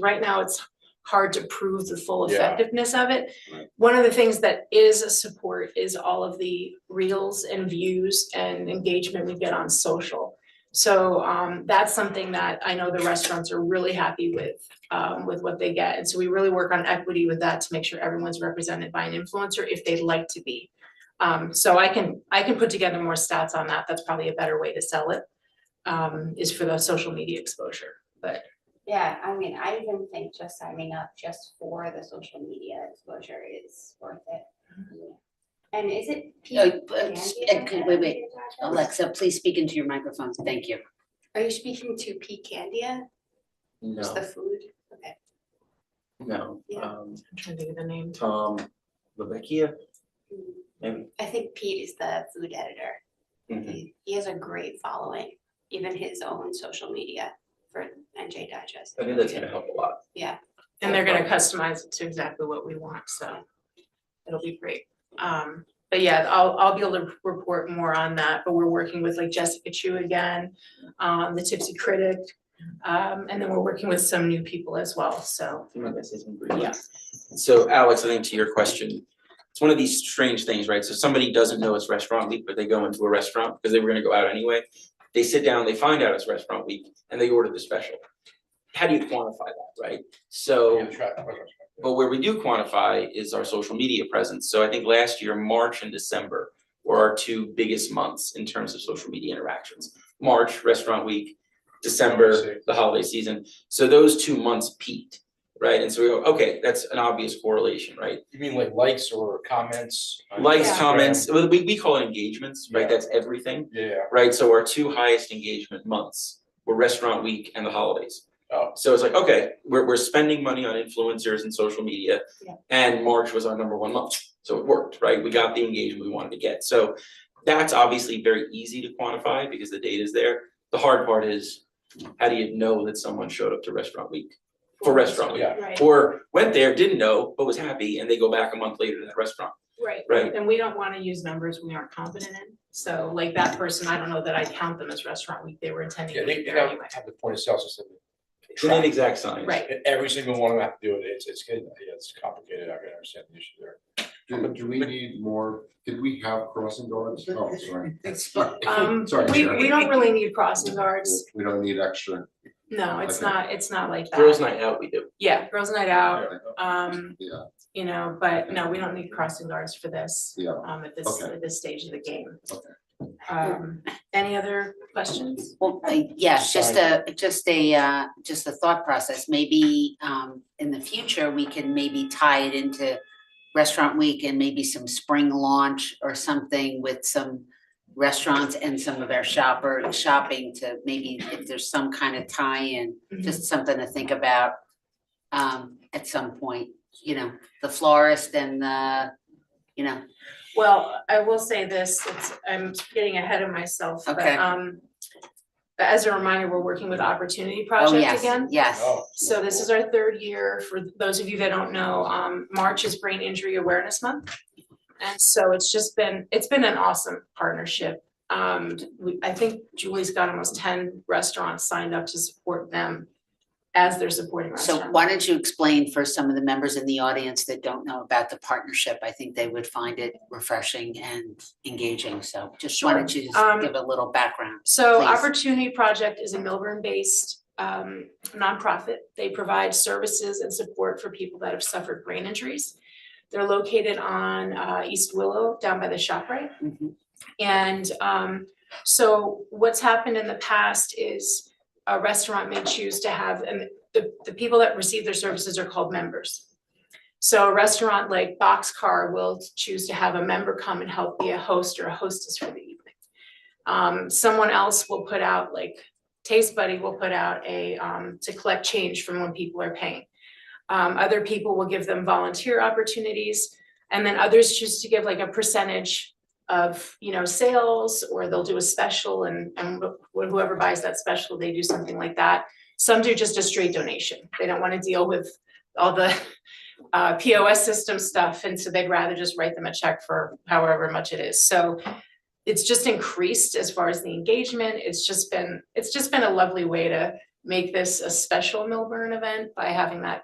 right now it's hard to prove the full Yeah. effectiveness of it. Right. One of the things that is a support is all of the reels and views and engagement we get on social. So um that's something that I know the restaurants are really happy with um with what they get. And so we really work on equity with that to make sure everyone's represented by an influencer if they'd like to be. Um so I can I can put together more stats on that. That's probably a better way to sell it. Um is for the social media exposure. Yeah, I mean, I even think just signing up just for the social media exposure is worth it. And is it? P- Uh, Mm-hmm. but- Candy and could- wait, wait, Candia? Alexa, please speak into your microphone. Thank you. Are you speaking to P Candia? Just the No, food? Okay. no, Yeah. um, I'm trying to think of the name. Tom, Rebecca, Mm. maybe. I think Pete is the food editor. Mm-hmm. Mm-hmm. He he has a great following, even his own social media for NJ Digest. I think that's gonna help a lot. And they're gonna customize it to exactly what we want, so it'll be great. Um, but yeah, I'll, I'll be able to report more on that, but we're working with like Jessica Chu again, um, the Tipsy Critic. Um, and then we're working with some new people as well, so, You might wanna say something briefly. yeah. So Alex, I think to your question, it's one of these strange things, right? So somebody doesn't know it's restaurant week, but they go into a restaurant because they were gonna go out anyway. They sit down, they find out it's restaurant week and they order the special. How do you quantify that, right? So, but where we do quantify is our social media presence. So I think last year, March and December were our two biggest months in terms of social media interactions. March, restaurant week, December, the holiday season. So those two months peaked, right? And so we go, okay, that's an obvious correlation, right? You mean like likes or comments? on Likes, Instagram? comments, well, we, we call it engagements, right? Yeah. That's everything, Yeah, right? So our two highest engagement months were restaurant week and the holidays. Oh. So it's like, okay, we're, we're spending money on influencers and social media. Yeah. And March was our number one month, so it worked, right? We got the engagement we wanted to get. So that's obviously very easy to quantify because the data's there. The hard part is, how do you know that someone showed up to restaurant week, for restaurant week? yeah. Right, Or went there, didn't know, but was happy, and they go back a month later to that restaurant. right. Right. And we don't wanna use numbers we aren't confident in, so like that person, I don't know that I count them as restaurant week, they were intending Yeah, to they be they there have anyway. have the point of sale system. It's an inexact science. Right. And Every single one of them have to do it. It's it's good. Yeah, it's complicated. I can understand the issue there. Do, do we need more, did we have crossing guards? Oh, sorry. Um, Sorry, we, Sharon. we don't really need crossing guards, We don't need extra. no, it's Okay. not, it's not like that. Girls' night out, we do. Yeah, girls' night out, Yeah. Um, Yeah. you know, but no, we don't need crossing guards for this, Yeah, um, at this, Okay. at this stage of the game. Okay. Um, any other questions? Well, uh, yeah, just a, just a, uh, just a thought process. Maybe um, in the future, we can maybe tie it into Restaurant Week and maybe some spring launch or something with some restaurants and some of our shopper, shopping to maybe if there's some kind of tie-in, Mm-hmm. Mm-hmm. just something to think about um, at some point, you know, the florist and the, you know, Well, I will say this, it's, I'm getting ahead of myself, but, Okay. um, but as a reminder, we're working with Opportunity oh, Project yes, again. yes. Oh. So this is our third year, for those of you that don't know, um, March is Brain Injury Awareness Month. And so it's just been, it's been an awesome partnership. Um, we, I think Julie's got almost ten restaurants signed up to support them as they're supporting So restaurants. why don't you explain for some of the members in the audience that don't know about the partnership? I think they would find it refreshing and engaging, so just why don't you Um, just give a little background? So please. Opportunity Project is a Milburn-based, um, nonprofit. They provide services and support for people that have suffered brain injuries. They're located on, uh, East Willow, down by the ShopRite. Mhm. And um, so what's happened in the past is a restaurant may choose to have, and the, the people that receive their services are called members. So a restaurant like Boxcar will choose to have a member come and help be a host or a hostess for the evening. Um, someone else will put out like Taste Buddy will put out a, um, to collect change from when people are paying. Um, other people will give them volunteer opportunities, and then others choose to give like a percentage of, you know, sales, or they'll do a special and, and wh- whoever buys that special, they do something like that. Some do just a straight donation. They don't want to deal with all the uh, POS system stuff, and so they'd rather just write them a check for however much it is. So it's just increased as far as the engagement. It's just been, it's just been a lovely way to make this a special Milburn event by having that